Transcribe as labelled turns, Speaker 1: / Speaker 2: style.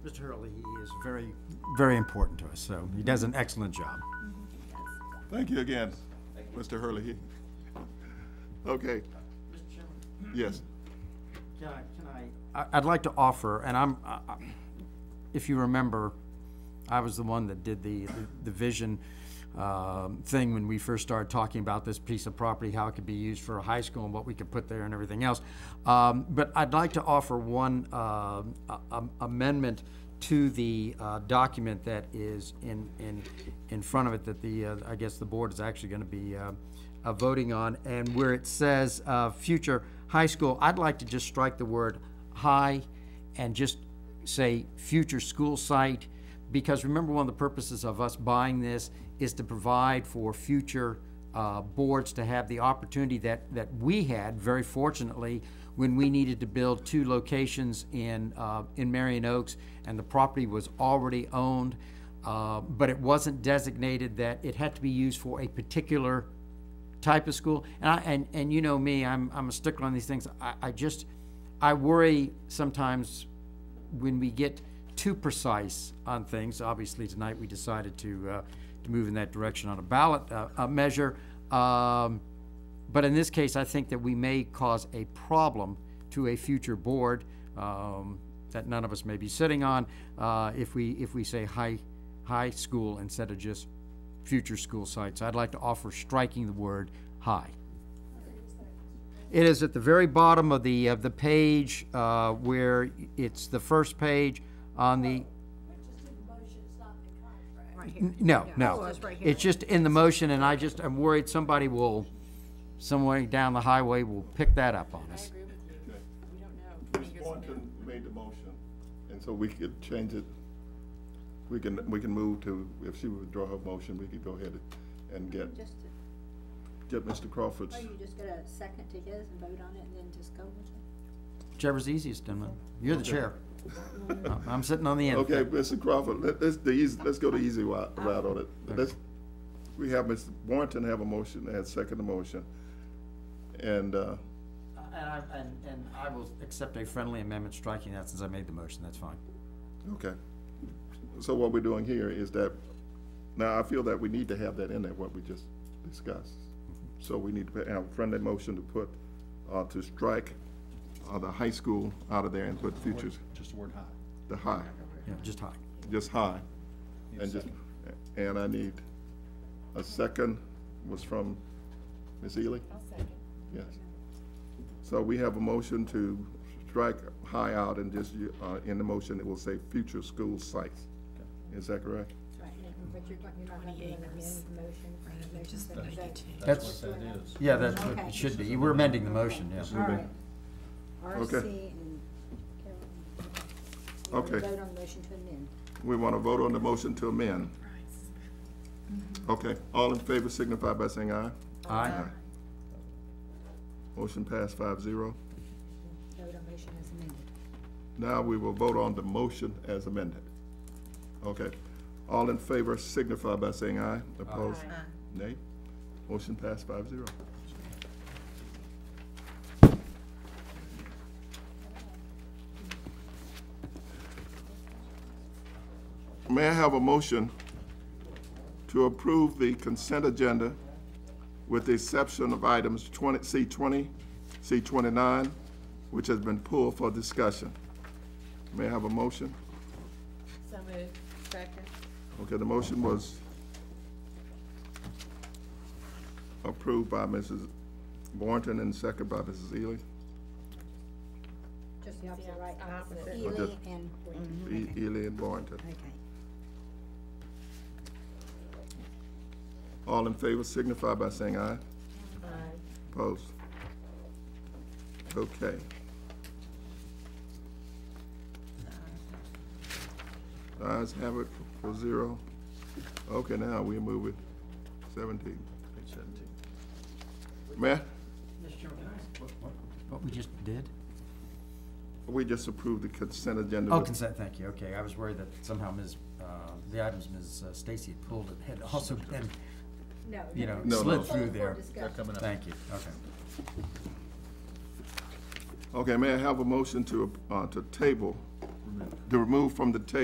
Speaker 1: Mr. Hurley is very, very important to us, so he does an excellent job.
Speaker 2: Thank you again, Mr. Hurley. Okay,
Speaker 1: Mr. Chairman,
Speaker 2: yes,
Speaker 1: can I, can I? I'd like to offer, and I'm, I- I- if you remember, I was the one that did the, the vision um, thing when we first started talking about this piece of property, how it could be used for a high school and what we could put there and everything else. Um, But I'd like to offer one um, a- a- amendment to the uh, document that is in, in, in front of it that the, uh, I guess the board is actually going to be uh, uh, voting on. And where it says uh, future high school, I'd like to just strike the word high and just say future school site, because remember, one of the purposes of us buying this is to provide for future uh, boards to have the opportunity that, that we had, very fortunately, when we needed to build two locations in, uh, in Marion Oaks, and the property was already owned, uh, but it wasn't designated that it had to be used for a particular type of school. And I, and, and you know me, I'm, I'm a stickler on these things. I, I just, I worry sometimes when we get too precise on things. Obviously, tonight we decided to, uh, to move in that direction on a ballot, uh, uh measure. Um, but in this case, I think that we may cause a problem to a future board, um, that none of us may be sitting on, uh, if we, if we say high, high school instead of just future school sites. I'd like to offer striking the word high. It is at the very bottom of the, of the page, uh, where it's the first page on the, N- No, no.
Speaker 3: it's right
Speaker 1: It's just in the motion, and I just, I'm worried somebody will, some way down the highway, will pick that up on us.
Speaker 2: okay.
Speaker 3: We don't know.
Speaker 2: Ms. Boynton made the motion, and so we could change it. We can, we can move to, if she withdraw her motion, we could go ahead and get,
Speaker 4: Just, to-
Speaker 2: get Mr. Crawford's.
Speaker 4: oh, you just get a second to his and vote on it and then just go with it?
Speaker 1: Whichever's easiest, Dimon. You're the chair. I'm- I'm sitting on the end.
Speaker 2: Okay, Mr. Crawford, let, let's, the easy, let's go the easy wa- route on it. Let's, we have Ms. Boynton have a motion and second the motion. And, uh,
Speaker 1: And I, and, and I will accept a friendly amendment striking that since I made the motion, that's fine.
Speaker 2: Okay. So what we're doing here is that, now I feel that we need to have that in there, what we just discussed. So we need to put, our friendly motion to put, uh, to strike, uh, the high school out of there and put futures,
Speaker 5: Just the word high.
Speaker 2: the high,
Speaker 1: Yeah, just high.
Speaker 2: just high. And just, and I need, a second was from Ms. Ely? Yes. So we have a motion to strike high out and just, uh, in the motion, it will say future school sites. Is that correct?
Speaker 4: Right, but you're not, you're not gonna do an amended motion, a motion second vote.
Speaker 1: That's,
Speaker 5: That is.
Speaker 1: yeah, that's what it should be. We're amending the motion, yes.
Speaker 4: All right.
Speaker 2: Okay.
Speaker 4: RC and Carol.
Speaker 2: Okay.
Speaker 4: Vote on the motion to amend.
Speaker 2: We want to vote on the motion to amend. Okay, all in favor signify by saying aye.
Speaker 1: Aye.
Speaker 2: Motion passed five zero.
Speaker 4: Vote on motion as amended.
Speaker 2: Now we will vote on the motion as amended. Okay, all in favor signify by saying aye. Opposed? Nay? Motion passed five zero. May I have a motion to approve the consent agenda with the exception of items twenty, C twenty, C twenty-nine, which has been pulled for discussion. May I have a motion?
Speaker 3: So moved. Second.
Speaker 2: Okay, the motion was approved by Mrs. Boynton and second by Mrs. Ely.
Speaker 4: Just the opposite, right?
Speaker 3: Opposite.
Speaker 4: Ely
Speaker 3: Mm-hmm.
Speaker 2: Okay.
Speaker 4: and,
Speaker 2: E- Ely and Boynton.
Speaker 4: okay.
Speaker 2: All in favor signify by saying aye.
Speaker 3: Aye.
Speaker 2: Opposed? Okay. The Ayes have it for zero. Okay, now we move it seventeen. May, I-
Speaker 1: What we just did?
Speaker 2: we just approved the consent agenda.
Speaker 1: Oh,
Speaker 2: with-
Speaker 1: consent, thank you, okay, I was worried that somehow Ms., uh, the items Ms. uh, Stacy had pulled had also been,
Speaker 4: No.
Speaker 1: you know,
Speaker 2: No, no.
Speaker 1: slid through there.
Speaker 4: discussion.
Speaker 1: Thank you, okay.
Speaker 2: Okay, may I have a motion to, uh, to table to remove from the table